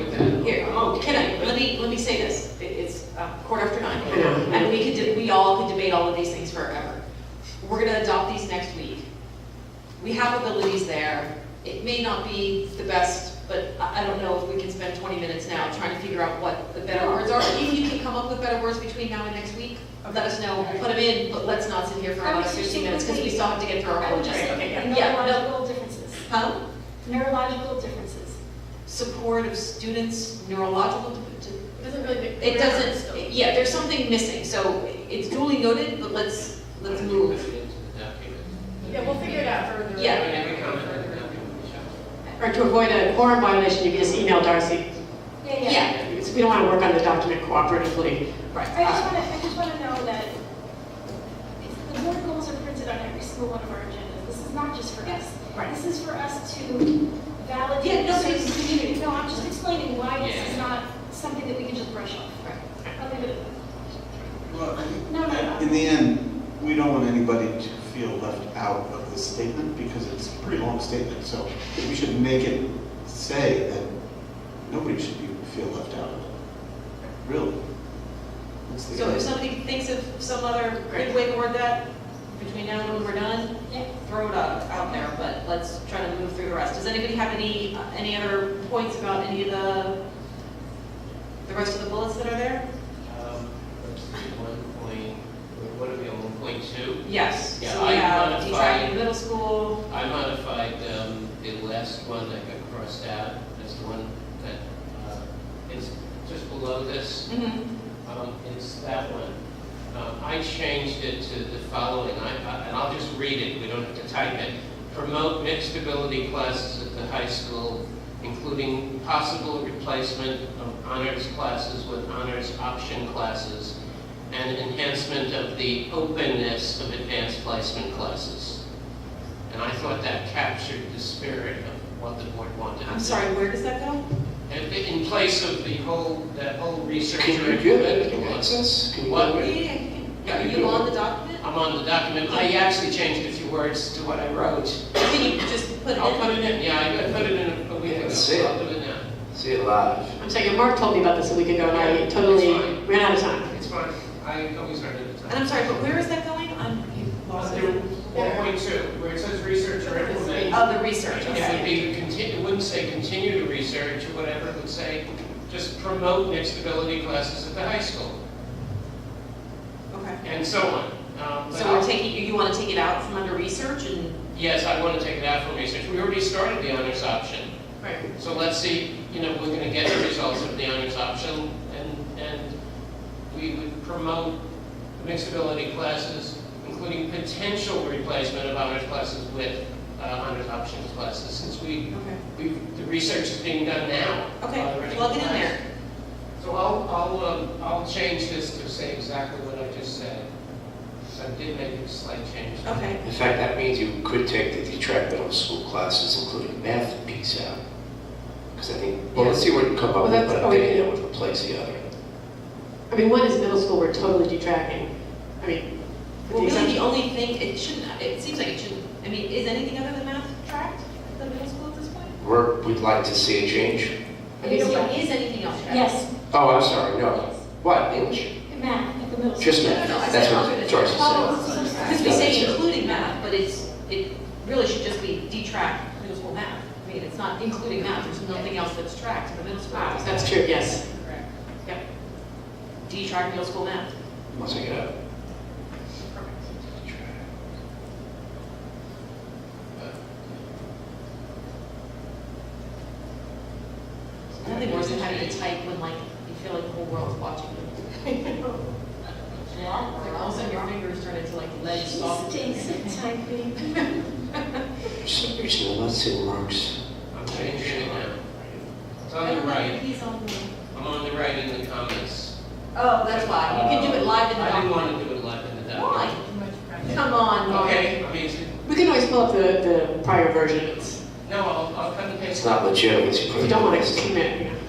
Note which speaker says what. Speaker 1: oh, about quarter uh, after nine. And we could, de- we all could debate all of these things forever. We're gonna adopt these next week. We have abilities there. It may not be the best, but I, I don't know if we can spend twenty minutes now trying to figure out what the better words are. If you can come up with better words between now and next week, let us know, We'll put them in, but let's not sit here for
Speaker 2: I
Speaker 1: another
Speaker 2: was just
Speaker 1: fifteen minutes, because we
Speaker 2: thinking-
Speaker 1: still have to get through our whole agenda. Yeah, no.
Speaker 2: Neurological differences.
Speaker 1: Huh?
Speaker 2: Neurological differences.
Speaker 1: Support of students, neurological, d- d-
Speaker 3: Doesn't really make.
Speaker 1: It doesn't, yeah, there's something missing, so it's duly noted, but let's, let's move.
Speaker 4: Put it into the document.
Speaker 3: Yeah, we'll figure it out further.
Speaker 1: Yeah.
Speaker 4: When every comment in the document, we shall.
Speaker 5: Or to avoid a quorum violation, you can just email Darcy.
Speaker 1: Yeah,
Speaker 5: Because we don't want to work on the document cooperatively.
Speaker 2: I just
Speaker 1: right.
Speaker 2: want to, I just want to know that it's- the board goals are printed on every single one of our agendas. This is not just for us.
Speaker 1: Right.
Speaker 2: This is for us to
Speaker 1: Yeah,
Speaker 2: validate
Speaker 1: no,
Speaker 2: the
Speaker 1: but it's-
Speaker 2: community. No, I'm just explaining why this is
Speaker 4: Yeah.
Speaker 2: not something that we can just brush off. I'll leave it at that.
Speaker 6: Well, I think
Speaker 2: No, no,
Speaker 6: In
Speaker 2: no.
Speaker 6: the end, we don't want anybody to feel left out of this statement because it's a pretty long statement, so we should make it say that nobody should be, feel left out of it. Really? That's the
Speaker 1: So if
Speaker 6: end.
Speaker 1: somebody thinks of some other good way to word that, between now and when we're done,
Speaker 2: Yeah.
Speaker 1: throw it out, out there, but let's try to move through the rest. Does anybody have any, any other points about any of the, the rest of the bullets that are there?
Speaker 4: Um, let's see, one point, what are we on, one point two?
Speaker 1: Yes,
Speaker 4: Yeah,
Speaker 1: so we
Speaker 4: I
Speaker 1: have
Speaker 4: modified-
Speaker 1: detracting middle school.
Speaker 4: I modified, um, the last one that got crossed out, that's the one that, uh, it's just below this,
Speaker 1: Mhm.
Speaker 4: um, it's that one. Um, I changed it to the following, I, I- and I'll just read it, we don't have to type it. Promote mixed ability classes at the high school, including possible replacement of honors classes with honors option classes, and enhancement of the openness of advanced placement classes. And I thought that captured the spirit of what the board wanted.
Speaker 1: I'm sorry, where does that go?
Speaker 4: And In place of the whole, that whole research.
Speaker 7: Can you do that, can you access? Can you
Speaker 4: What?
Speaker 7: do it?
Speaker 1: Yeah, Are you on the document?
Speaker 5: Oh.
Speaker 4: I'm on the document, I actually changed a few words to what I wrote.
Speaker 1: Can you just put it in?
Speaker 4: I'll put it in, yeah, I I put it in a week ago,
Speaker 7: Let's see it.
Speaker 4: I'll do it now.
Speaker 7: See it live.
Speaker 5: I'm saying, Mark told me about this a week ago, and I totally ran out of time.
Speaker 4: It's fine, I always heard it.
Speaker 1: And I'm sorry, but where is that going? I'm, you lost
Speaker 4: Under
Speaker 1: it.
Speaker 4: one point two, where it says research or implement.
Speaker 1: Oh, the research,
Speaker 4: It would
Speaker 1: okay.
Speaker 4: be, conti- it wouldn't say continue to research or whatever, it would say just promote mixed ability classes at the high school,
Speaker 1: Okay.
Speaker 4: and so on. Um, but
Speaker 1: So
Speaker 4: I'll-
Speaker 1: we're taking, you- you want to take it out from under research and?
Speaker 4: Yes, I want to take it out from research, we already started the honors option.
Speaker 1: Right.
Speaker 4: So let's see, you know, we're gonna get the results of the honors option, and, and we would promote mixed ability classes, including potential replacement of honors classes with uh, honors options classes, since we,
Speaker 1: Okay.
Speaker 4: we, the research is being done now. Uh,
Speaker 1: Okay,
Speaker 4: already.
Speaker 1: plug it in there.
Speaker 4: So I'll, I'll, um, I'll change this to say exactly what I just said, so I did make a slight change.
Speaker 1: Okay.
Speaker 7: In fact, that means you could take the detract middle school classes, including math piece out. Because I think, well, let's see what you come up
Speaker 5: Well,
Speaker 7: with,
Speaker 5: that's-
Speaker 7: but I
Speaker 5: oh,
Speaker 7: think
Speaker 5: yeah.
Speaker 7: that would replace the other.
Speaker 5: I mean, one is middle school, we're totally detracting. I mean, with
Speaker 1: Well,
Speaker 5: the
Speaker 1: really, the
Speaker 5: exception.
Speaker 1: only thing, it shouldn't, it seems like it shouldn't, I mean, is anything other than math tracked at the middle school at this point?
Speaker 7: We're, we'd like to see a change.
Speaker 5: I think so.
Speaker 1: Is anything else tracked?
Speaker 2: Yes,
Speaker 7: Oh, I'm sorry, no. What, English?
Speaker 2: math at the middle.
Speaker 7: Just
Speaker 1: No,
Speaker 2: school.
Speaker 1: no,
Speaker 7: math.
Speaker 1: no, I
Speaker 7: That's
Speaker 1: said
Speaker 7: what
Speaker 1: alternate.
Speaker 7: Doris said.
Speaker 2: Oh, I'm so sorry.
Speaker 1: Because we say including math, but it's, it really should just be detract middle school math. I mean, it's not including math, there's nothing else that's tracked in the middle school.
Speaker 5: Ah, That's true, yes.
Speaker 1: Correct. Yep. Detract middle school math.
Speaker 7: Let's take it out.
Speaker 1: Nothing worse than having to type when like, you feel like the whole world's watching you. Like all of a sudden your fingers turn into like lead
Speaker 2: Stinks
Speaker 1: sausage.
Speaker 2: of typing.
Speaker 7: Just, just, let's see marks.
Speaker 4: I'm changing it now. It's on the Oh, right,
Speaker 1: He's on the.
Speaker 4: I'm on the right in the comments.
Speaker 1: Oh, that's why, you can do it live in the
Speaker 4: I didn't
Speaker 1: document.
Speaker 4: want to do it live in the
Speaker 1: Why?
Speaker 4: document.
Speaker 1: Come on, Mark.
Speaker 4: Okay, I mean, it's-
Speaker 5: We can always pull up the, the prior version. It's-
Speaker 4: no, I'll, I'll cut and paste.
Speaker 7: It's not legitimate.
Speaker 5: If you don't want to commit, you know.
Speaker 1: Oh, Uh, Um,